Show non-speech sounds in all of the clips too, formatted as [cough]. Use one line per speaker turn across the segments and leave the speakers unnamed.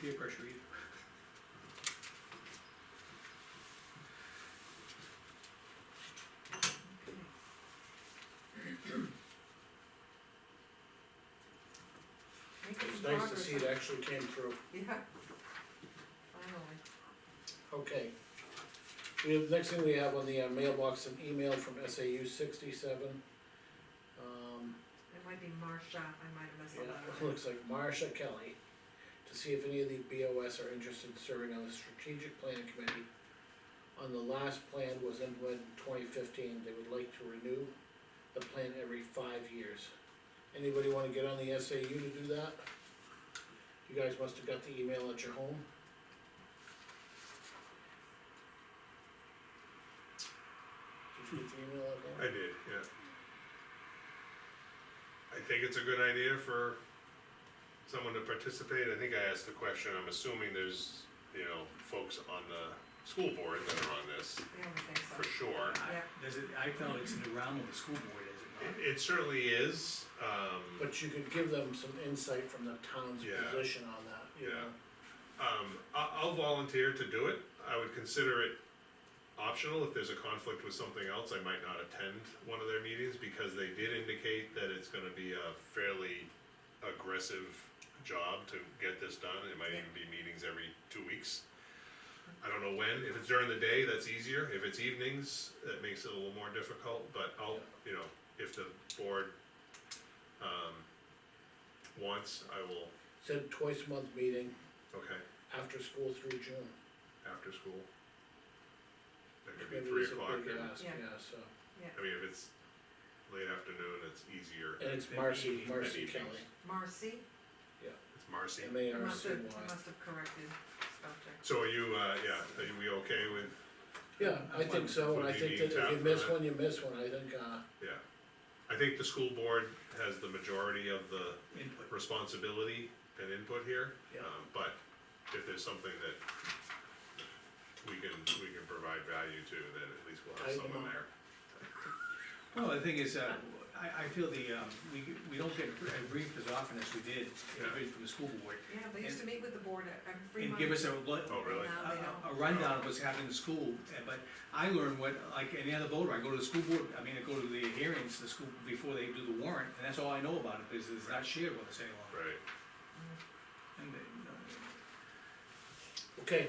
peer pressure either.
Making
It was nice to
progress.
see it actually came through,
[laughs] Yeah. Finally.
okay. We have, next thing we have on the uh, mailbox, an email from SAU sixty-seven. Um,
It might be Marcia, I might have messed
yeah,
up.
it looks like Marsha Kelly, to see if any of the BOS are interested in serving on the strategic planning committee. On the last plan was implemented in twenty fifteen, they would like to renew the plan every five years. Anybody wanna get on the SAU to do that? You guys must have got the email at your home. Did you get the email at
I
home?
did, yeah. I think it's a good idea for someone to participate, I think I asked the question, I'm assuming there's, you know, folks on the school board that are on this,
Yeah, I would think so.
for sure.
I-
Yeah.
Does it, I felt it's in the realm of the school board, is it not?
It- It certainly is, um,
But you could give them some insight from the town's
Yeah.
position on that, you
Yeah.
know?
um, I, I'll volunteer to do it, I would consider it optional, if there's a conflict with something else, I might not attend one of their meetings, because they did indicate that it's gonna be a fairly aggressive job to get this done, it might even be meetings every two weeks. I don't know when, if it's during the day, that's easier, if it's evenings, that makes it a little more difficult, but I'll, you know, if the board, um, wants, I will,
Said twice a month meeting,
okay,
after school through June.
after school. That could be
Maybe
three
it's a
o'clock,
big
and-
ask,
Yeah.
Yeah, so,
I mean, if it's late afternoon, it's easier,
and it's
Maybe
Marcy,
evening,
Marcy
maybe
Kelly,
Marcy,
it's Marcy.
M A
I
R
must
C
have, I
Y.
must have corrected stuff there.
So are you, uh, yeah, are you, we okay with,
Yeah, I think so, and I think that if you miss one, you miss one, I think, uh,
yeah. I think the school board has the majority of the
Input.
responsibility and input here.
Yeah.
um, But if there's something that we can, we can provide value to, then at least we'll have
Tighten them
someone
up.
there.
Well, the thing is, uh, I, I feel the, um, we, we don't get briefed as often as we did, individually from the school board.
Yeah, they used to meet with the board at- every
And
month.
give us a, lo-
Oh, really?
a-
Now they don't.
a a rundown of what's happening in school, uh, but I learned what, like any other voter, I go to the school board, I mean, I go to the hearings, the school, before they do the warrant, and that's all I know about it, because it's not shared with us any longer.
Right,
And, uh, no,
okay,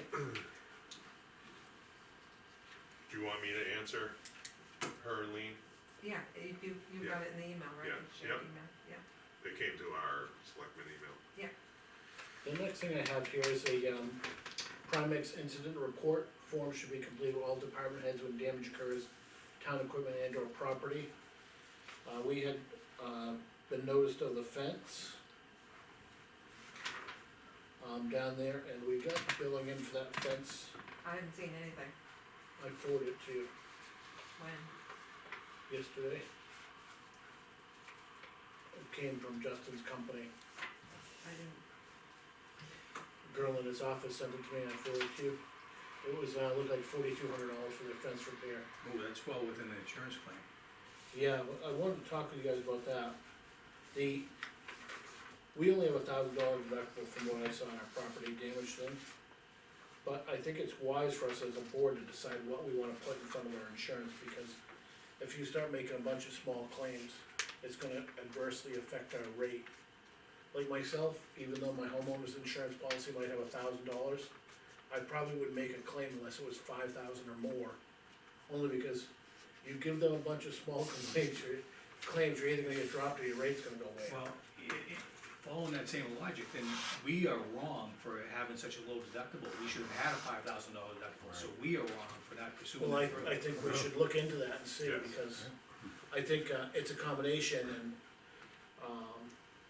do you want me to answer her, Lean?
Yeah, you, you you got it in the email, right?
Yeah,
You shared
yep.
email, Yeah,
They came to our selectmen email.
the next thing I have here is a, um, Primex incident report, form should be completed with all department heads when damage occurs, town equipment and or property. Uh, we had, uh, been noticed of the fence. Um, down there, and we got billing in for that fence,
I haven't seen anything,
I forwarded it to you.
when,
yesterday. It came from Justin's company,
I didn't,
A girl in his office sent it to me and I forwarded it to you. It was, uh, looked like forty-two hundred dollars for the fence repair.
Oh, that's well within the insurance claim.
Yeah, I wanted to talk to you guys about that. The, we only have a thousand dollar deductible from what I saw in our property damage thing. But I think it's wise for us as a board to decide what we wanna put in front of our insurance, because if you start making a bunch of small claims, it's gonna adversely affect our rate. Like myself, even though my homeowner's insurance policy might have a thousand dollars, I probably would make a claim unless it was five thousand or more. Only because you give them a bunch of small [laughs] complaints, your claims, you're either gonna get dropped or your rate's gonna go way
Well,
up.
i- i- following that same logic, then we are wrong for having such a low deductible, we should have had a five thousand dollar deductible, so we are wrong for not pursuing
Well, I,
that
I
further.
think we should look into that and see,
Yes.
because I think, uh, it's a combination and, um,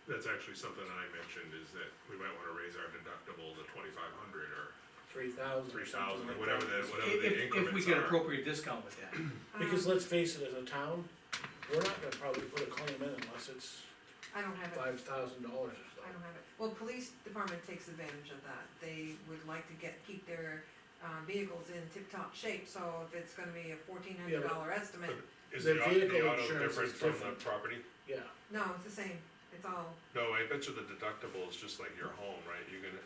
That's actually something I mentioned, is that we might wanna raise our deductible to twenty-five hundred or
three thousand or
three
something
thousand,
like
or whatever the,
that.
whatever
If,
the
if- if we
increments
get
are.
appropriate discount with that,
Because
um,
let's face it, as a town, we're not gonna probably put a claim in unless it's
I don't have it.
five thousand dollars
I
or something.
don't have it. Well, police department takes advantage of that. They would like to get, keep their, uh, vehicles in tip-top shape, so if it's gonna be a fourteen hundred dollar estimate,
Is
The
the auto,
vehicle
the auto
insurance
different
is
from the
different.
property?
Yeah,
no, it's the same, it's all
No, I bet you the deductible is just like your home, right? You're gonna,